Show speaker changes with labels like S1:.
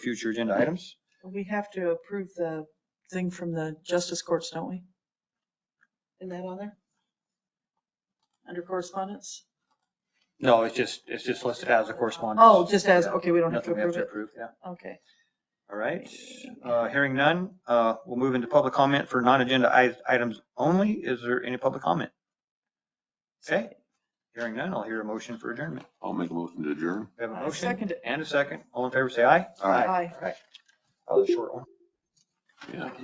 S1: future agenda items.
S2: We have to approve the thing from the justice courts, don't we? Isn't that on there? Under correspondence?
S1: No, it's just, it's just listed as a correspondence.
S2: Oh, just as, okay, we don't have to
S1: Nothing we have
S2: approve
S1: to
S2: it.
S1: approve, yeah.
S2: Okay.
S1: All right, uh, hearing none, uh, we'll move into public comment for non-agenda i- items only. Is there any public comment? Okay, hearing none, I'll hear a motion for adjournment.
S3: I'll make a motion to adjourn.
S1: We have a
S2: I
S1: motion
S2: second it.
S1: and a second. All in favor, say aye.
S3: Aye.
S2: Aye.
S1: That was a short one.
S3: Yeah.